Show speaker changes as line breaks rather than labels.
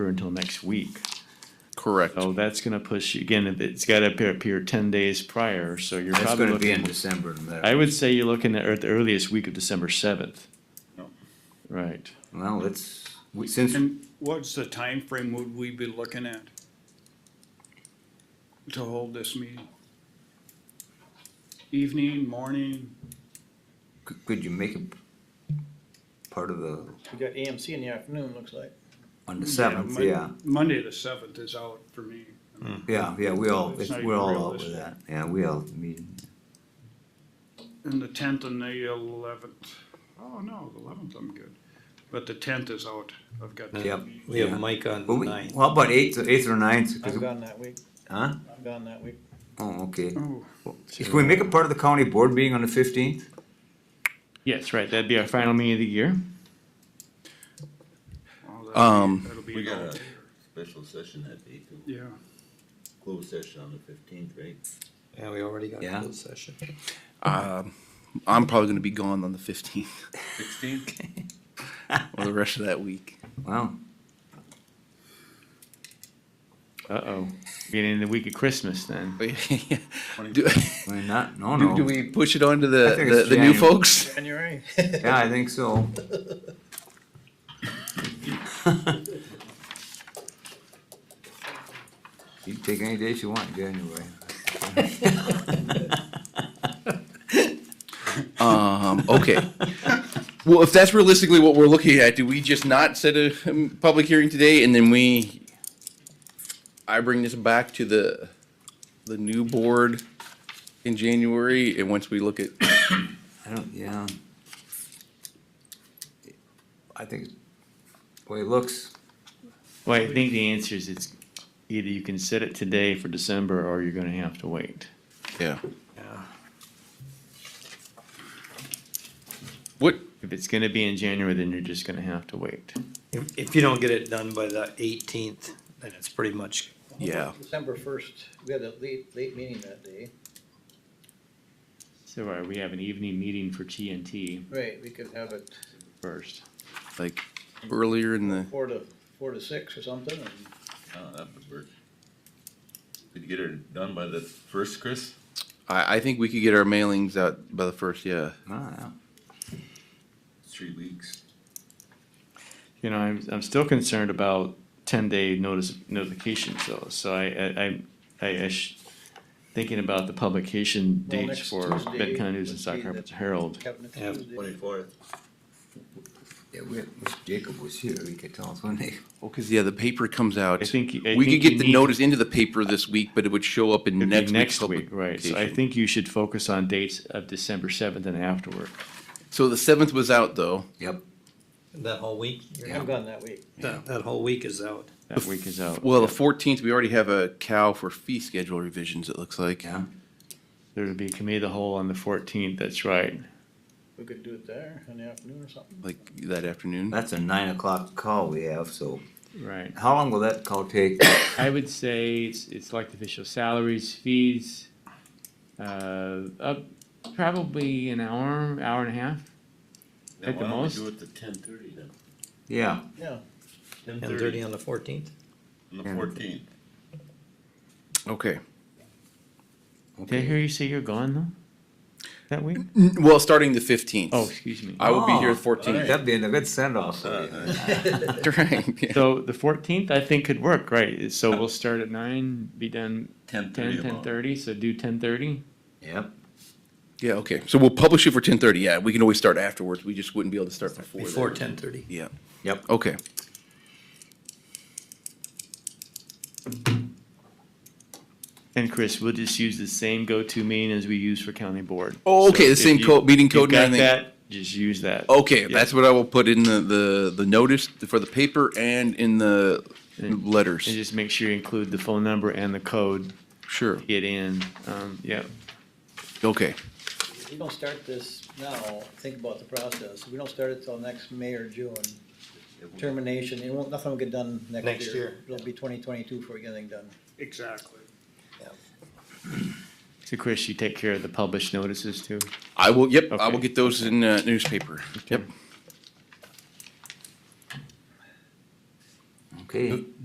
through until next week.
Correct.
So that's gonna push, you again, it's gotta appear, appear ten days prior, so you're
That's
probably
gonna be in
looking.
December, no matter.
I would say you're looking at the earliest week of December seventh. Right.
Well, it's, since,
And what's the time frame would we be looking at? To hold this meeting? Evening, morning,
c- could you make it part of the,
We got AMC in the afternoon, looks like.
on the seventh,
Mon-
yeah,
Monday the seventh is out for me.
yeah, yeah, we all,
It's
it's-
not
we're
even
all out with that,
realistic.
yeah, we all meet.
And the tenth and the eleventh, oh no, the eleventh I'm good, but the tenth is out, I've got. that
Yep.
meeting.
We
Yeah.
have Mike on
But
the
we,
ninth.
how about eighth, eighth or ninth,
I'm
'Cause-
gone that week,
huh,
I'm gone that week.
oh, okay.
Oh,
Can we make it part of the county board meeting on the fifteenth?
Yes, right, that'd be our final meeting of the year.
well, that'll be-
Um,
that'll be
We got
out.
a special session that day too,
Yeah,
closed session on the fifteenth, right?
Yeah, we already got
Yeah.
closed session.
Um, I'm probably going to be gone on the 15th
Sixteenth?
or the rest of that week.
Wow,
Uh-oh, beginning of the week of Christmas then.
do,
I mean, not, no, Oh,
do,
no,
do we push it on to
I
the,
think
the,
it's
the new
January.
folks?
January.
yeah, I think so, you can take any days you want in January.
Um, okay. well, if that's realistically what we're looking at, do we just not set a um, public hearing today and then we, I bring this back to the, the new board in January and once we look at,
I don't, yeah. I think, the way it looks,
Well, I think the answer is it's either you can set it today for December or you're gonna have to wait.
yeah.
Yeah.
What,
If it's gonna be in January, then you're just gonna have to wait.
If, if you don't get it done by the eighteenth, then it's pretty much,
yeah.
December first, we had a late, late meeting that day.
So all right, we have an evening meeting for TNT
Right, we could have it
first.
like earlier in the
four to, four to six or something, and
Oh, that would work. Could you get it done by the first, Chris?
I, I think we could get our mailings out by the first yeah
ah,
Three weeks.
You know, I'm, I'm still concerned about ten day notice, notifications though, so I, I, I- I, I sh- thinking about the publication
Well,
dates
next
for
Tuesday
Benton News and
would
Stock
be the-
Rapids Herald.
cabinet
Yeah.
Tuesday.
Twenty-fourth.
yeah, we, if Jacob was here, he could tell us when they,
well because yeah the paper comes out
I think. I think
we could
you
get the
need-
notice into the paper this week but it would show up in
It'd be
next,
Next
week's
week, right, so I
publication.
think you should focus on dates of December seventh and afterward.
so the seventh was out though
yep,
that whole week,
I'm gone that week.
that, that whole week is out.
That week is out.
well the 14th we already have a cow for fee schedule revisions it looks like
yeah.
There'll be a committee of the whole on the fourteenth, that's right.
We could do it there in the afternoon or something.
like that afternoon
That's a nine o'clock call we have, so
Right.
how long will that call take?
I would say it's, it's like the official salaries, fees, uh, up probably an hour, hour and a half. At the most.
Do it to ten thirty then,
Yeah,
Yeah,
ten
Ten
thirty
thirty on the fourteenth?
on the fourteenth.
okay
Did I hear you say you're gone though? That week?
N- well starting the 15th
Oh, excuse me.
Mm-hmm. i will be here
Oh,
the 14th
that'd be a good send off.
Uh,
uh.
right yeah.
So the fourteenth, I think could work, right? So we'll start at nine, be done
Ten thirty.
ten, ten thirty, so do ten thirty?
Yep,
yeah okay so we'll publish it for 10.30 yeah we can always start afterwards we just wouldn't be able to start before,
Before
then.
ten thirty.
yeah
yep,
okay
And Chris, we'll just use the same go-to meeting as we use for county board.
Oh, okay, the
if
same
you-
code- meeting
you've
code and
got
everything.
that, Just use that.
Okay,
Yeah.
that's what I will put in the, the, the notice for the paper and in the
And- And
letters.
just make sure you include the phone number and the code,
Sure,
get in, um, yeah.
okay.
if we don't start this now, think about the process, if we don't start it till next May or June, termination, it won't, nothing will get done
Next
next year.
year.
It'll be twenty twenty-two before we get anything done.
exactly.
So Chris, you take care of the published notices too?
I will, yep, I will
Okay.
get those in uh, newspaper. Yep.
Okay.